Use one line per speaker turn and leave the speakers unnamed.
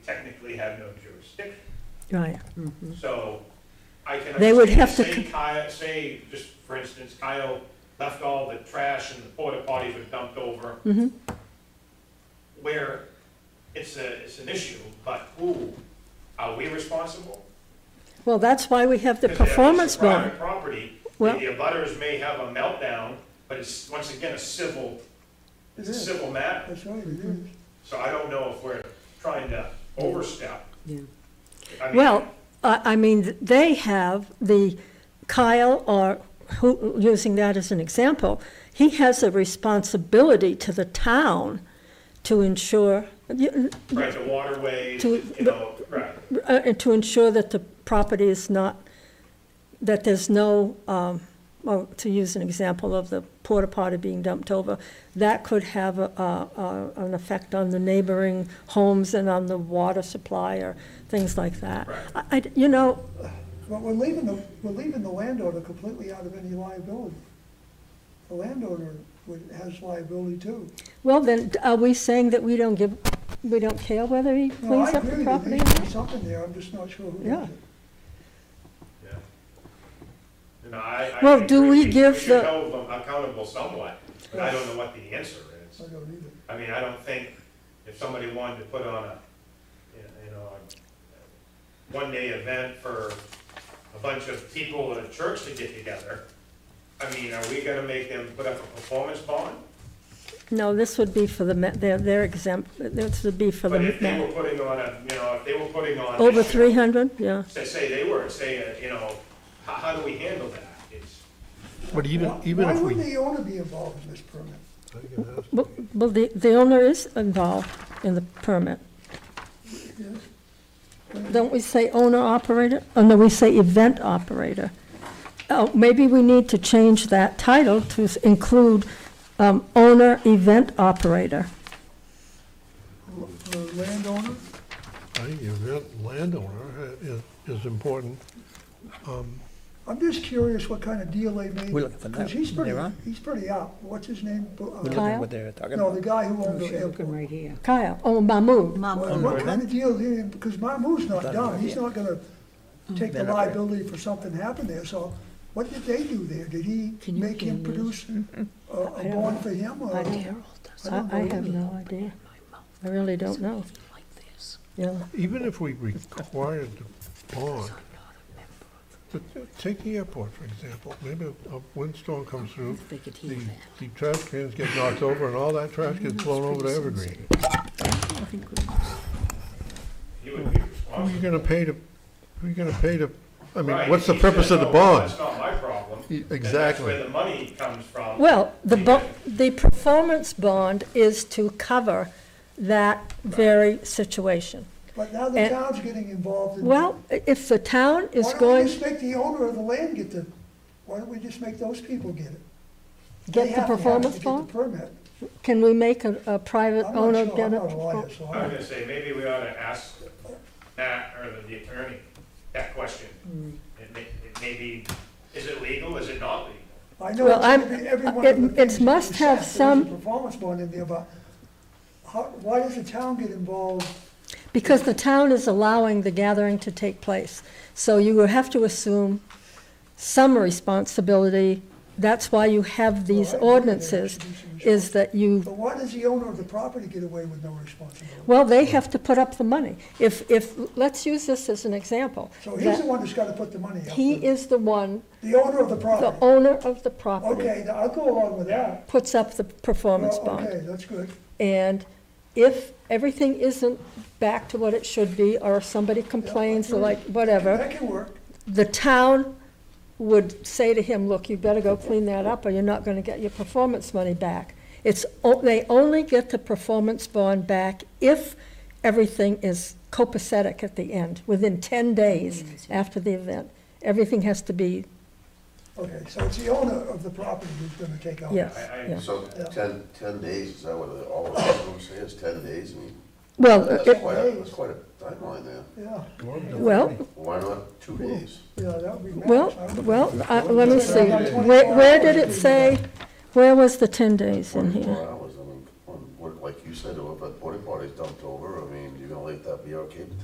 technically have no jurisdiction.
Right,
So I can.
Hmm. They would have to
understand, Say
c-
Kyle, say, just for instance, Kyle left all the trash and the porta potties were dumped over.
Mm-hmm.
Where it's a, it's an issue, but who, are we responsible?
well, that's why we have the
'Cause if it's a
performance bond.
Private property,
Well-
the abutters may have a meltdown, but it's, once again, a civil,
It
it's a
is.
civil matter.
That's right, it is.
So I don't know if we're trying to overstep. I mean,
Well, I, I mean, they have the, Kyle, or who, using that as an example, he has a responsibility to the town to ensure,
Right, the waterways, you
To-
know, right.
uh, and to ensure that the property is not, that there's no, um, well, to use an example of the porta potty being dumped over, that could have a, a, a- an effect on the neighboring homes and on the water supply or things like that.
Right.
I, I- you know,
But we're leaving the, we're leaving the landowner completely out of any liability. The landowner would- has liability too.
well, then, are we saying that we don't give, we don't care whether he
No, I
cleans up the
agree that
property or
there needs to be
not?
something there, I'm just not sure who
Yeah.
does it.
Yeah. And I- I
Well,
think
do we give
should
the-
hold them accountable somewhat, but I don't know what the answer is.
I don't either.
I mean, I don't think if somebody wanted to put on a, you know, a one-day event for a bunch of people at a church to get together, I mean, are we gonna make them put up a performance bond?
No, this would be for the, ma- they're, they're exempt, this would be for the,
But if they
ma-
were putting on a, you know, if they were putting on.
over
this year,
three hundred, yeah.
Say, say they were, say, uh, you know, how, how do we handle that? It's,
But even,
Why-
even if
Why
we.
wouldn't the owner be involved in this permit?
Well, well, the, the owner is involved in the permit.
Yes?
Don't we say owner operator? Oh, no, we say event operator. Oh, maybe we need to change that title to s- include um, owner event operator.
L- The landowner?
I think the landowner is, is important.
I'm just curious what kind of deal they made.
We're looking for
Because
that.
he's pretty,
They're on?
he's pretty out. What's his name? Bu- uh,
We're looking Oh,
Kyle?
at what they're talking
No, the
about.
guy who owned the
She's looking
airport.
right here.
Kyle, oh, Mahmood.
Well,
Mom,
What kind of deal, is he- because Mahmood's not
Done
dumb,
right
he's
here.
not gonna
Mm.
take the
Then up here.
liability for something happened there, so what did they do there? Did he
Can you-
make
can
him
you
produce a- a bond for him, or?
I I have no idea. I really don't know. Yeah,
Even if we required the bond, but take the airport, for example, maybe a windstorm comes through,
If they could hear
the,
that.
the trash cans get knocked over and all that trash gets blown over to Evergreen.
you would be
Who are you
responsible.
gonna pay to, who are you gonna pay to, I mean,
Right,
what's the
he
purpose
said,
of the
"Oh,
bond?
That's not my problem.
E-
And That's
exactly.
where the money comes from.
Well, the, bo- the performance bond is to cover that very situation.
But now the
And-
town's getting involved in.
Eh, Well, i- if the town is
Why don't
going
we just make the owner of the land get the, why don't we just make those people get it? They
get the
have to have it to
performance
get the
bond,
permit.
can we make a, a private
I'm
owner
not sure,
get
I'm not
a?
a lawyer, so
I was
I,
gonna say, maybe we ought to ask Matt or the attorney that question. It may, it may be, is it legal, is it not legal?
I know
Well,
it's
I'm-
every, every one
it-
of the
it
things that
must
you
have
said,
some-
There's a performance bond in there, but how, why does the town get involved?
Because the town is allowing the gathering to take place, so you will have to assume some responsibility. That's why you have these
Well, I agree there
ordinances,
should be some
is that you,
But why does the owner of the property get away with no responsibility?
well, they have to put up the money. If, if, let's use this as an example.
So he's the
that
one that's gotta put the money up.
He is the one,
The owner of the
the
property.
owner of the property,
Okay, now I'll go along with that.
puts up the performance
Well,
bond.
Okay, that's good.
And if everything isn't back to what it should be, or if somebody complains, or like, whatever,
That can work.
the town would say to him, look, you better go clean that up, or you're not gonna get your performance money back. It's, o- they only get the performance bond back if everything is copacetic at the end, within ten days after the event. Everything has to be,
Okay, so it's the owner of the property who's gonna take out.
yes,
I- I-
yeah.
So ten, ten days, is that what it- all the rules say, is ten days? I mean,
Well,
that's
it-
quite, a- that's quite a timeline there.
Yeah,
well,
Why not two days?
yeah, that would be nice.
Well,
I would-
well, I- let me see, where, where did it say, where was the ten days in
Twenty-four
here?
hours, I mean, on- what- like you said, if a porta potty's dumped over, I mean, you're gonna like that'd be okay, but